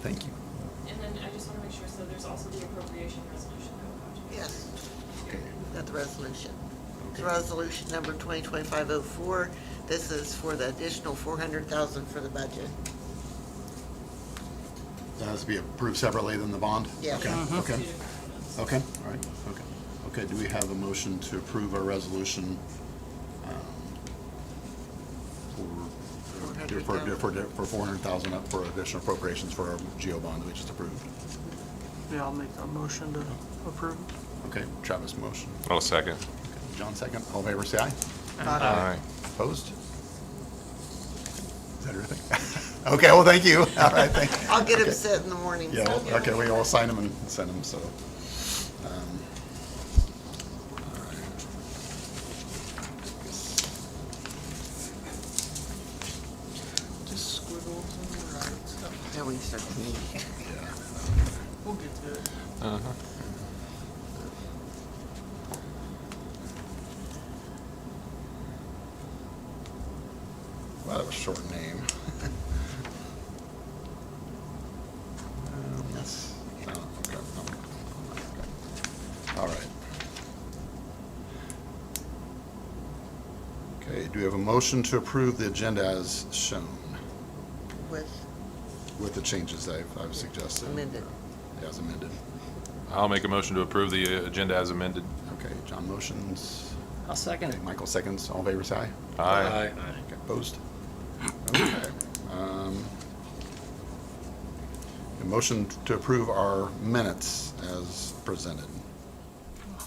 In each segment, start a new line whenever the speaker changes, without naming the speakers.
Thank you.
And then I just want to make sure, so there's also the appropriation resolution that we'll have to.
Yes,
Okay.
we've got the resolution. It's resolution number 2025-04. This is for the additional 400,000 for the budget.
That has to be approved separately than the bond?
Yes. Mm-hmm.
Mm-hmm.
Okay, okay,
Two different ones.
okay, all right, okay. Okay, do we have a motion to approve our resolution um, for, for, for for 400,000 up for additional appropriations for our GO bond that we just approved?
Yeah, I'll make a motion to approve.
Okay, Travis motion.
I'll second.
John second, all in favor, say aye.
Aye.
Opposed? Is that everything? Okay, well, thank you. All right, thank you.
I'll get
Okay.
upset in the morning.
Yeah, well, okay, we all sign them and send them, so. um, all right.
Just squiggles and stuff.
Now we can start the meeting.
Yeah.
We'll get to it.
Well, that was a short name. Um, that's- no, okay, no, okay. All right. Okay, do we have a motion to approve the agenda as shown
With
with the changes I've, I've suggested?
amended.
As amended.
I'll make a motion to approve the uh, agenda as amended.
Okay, John motions.
I'll second
Okay, Michael seconds. All in favor, say aye.
Aye.
Okay, Opposed? Okay. um, A motion to approve our minutes as presented.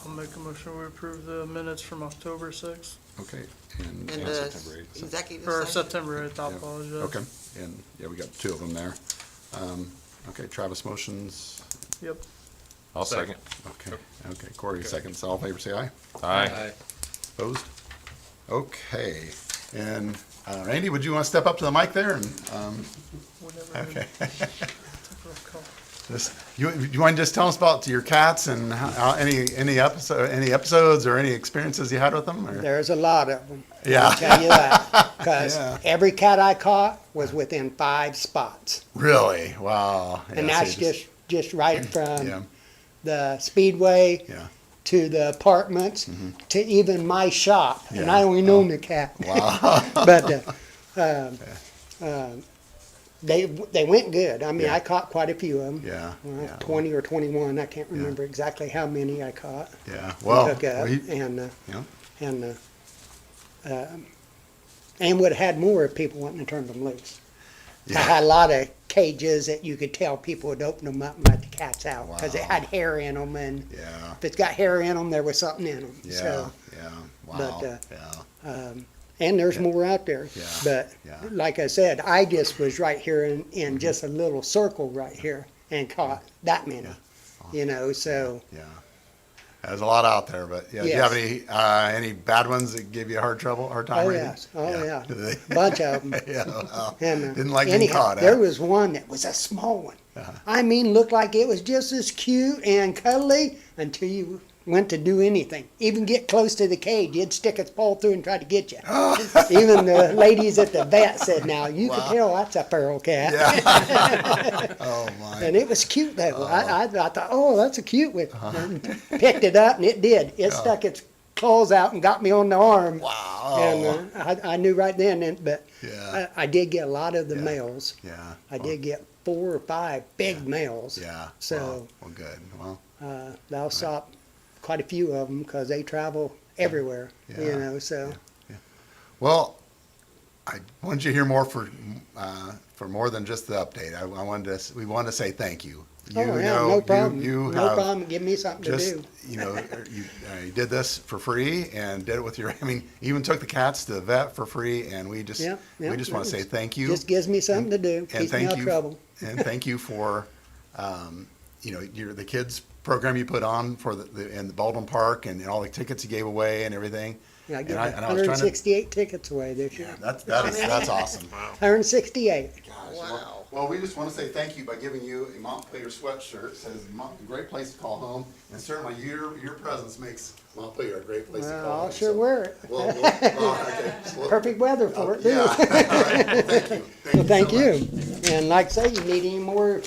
I'll make a motion to approve the minutes from October 6th,
Okay,
And
and.
the executive
or
session.
September 8th, I
yeah,
apologize.
Okay, and, yeah, we got two of them there. Um, Okay, Travis motions.
Yep.
I'll second.
Okay, okay, Corey seconds. All in favor, say aye.
Aye.
Opposed? Okay, and uh, Randy, would you want to step up to the mic there and, um,
Whenever
okay.
we took roll call.
This, you, you want to just tell us about your cats and how, any any episode, any episodes or any experiences you had with them? Or?
There's a lot of them.
Yeah.
I'll tell you that. Because
Yeah.
every cat I caught was within five spots.
Really? Wow.
And
Yeah, so
that's
you
just, just right
yeah,
from the speedway
yeah.
to the apartments to even my shop. And
Mm-hmm. Yeah. Oh.
I only known the cat.
Wow.
But uh, um, um, they, they went good. I mean,
Yeah.
I caught quite a few of them.
Yeah, yeah.
20 or 21. I can't
Yeah.
remember exactly how many I caught.
yeah. Well,
took up.
we-
And, uh,
yeah.
and uh, um, and would have had more if people wouldn't have turned them loose. I had a lot of cages that you could tell people would open them up and let the cats out because it
Wow.
had hair in them, and
Yeah.
if it's got hair in them, there was something in them.
Yeah.
So,
yeah. Wow.
but, uh,
yeah.
and there's more out there.
Yeah.
But
Yeah. Mm-hmm.
like I said, I just was right here in, in just a little circle right here and caught that many.
Yeah.
You know, so
Yeah. There's a lot out there, but yeah. Do you
Yes.
have any uh, any bad ones that give you a hard trouble, hard time?
oh
or anything?
yes, oh yeah,
Do they-
bunch of them.
yeah. Wow.
And, uh,
Didn't like being
anyhow,
caught. huh? Uh-huh.
There was one that was a small one. I mean, looked like it was just as cute and cuddly until you went to do anything. Even get close to the cage, it'd stick its paw through and try to get you. Even the ladies at the vet said, "Now you
Wow.
can tell that's a feral cat."
oh my.
And it was cute though. I, I, I thought, "Oh, that's a cute one."
Uh-huh.
And picked it up, and it did. It stuck its claws out and got me on the arm.
wow.
And uh, I, I knew right then, and, but uh,
Yeah.
I, I did get a lot of the
Yeah.
males.
yeah.
I did get four or five big males.
Yeah.
So
Well, well, good. Well,
uh, they'll stop quite a few of them because they travel everywhere.
Yeah.
You know, so
well, I wanted you to hear more for uh, for more than just the update. I, I wanted to. s- We wanted to say thank you. You
oh yeah,
know,
no problem.
You, you
no
have
problem. Give me something
Just
to do.
you know, you, uh, you did this for free and did it with your. I mean, even took the cats to the vet for free, and we just
Yeah, yeah,
we just want to
it
say
was-
thank you.
Just gives me something to do.
and
Keeps me
thank
out
you
of trouble.
and thank you for um, you know your the kids program you put on for the, the in the Baldwin Park and, all the tickets you gave away and everything.
Yeah, I
And
gave
I- and I was trying to-
168 tickets away this year.
That's that is that's awesome.
168.
Gosh, well- Well, we just want to say thank you by giving you a Montpelier sweatshirt. It Says Mont, a great place to call home, and certainly your your presence makes Montpelier a great place to
Well,
call home.
I'll sure
so-
wear it.
Well, well, uh, well, okay. Well, oh,
Perfect weather for it. too.
Yeah. All right. Well, Thank you.
Well,
so
thank
much.
you. And like I say, you need any more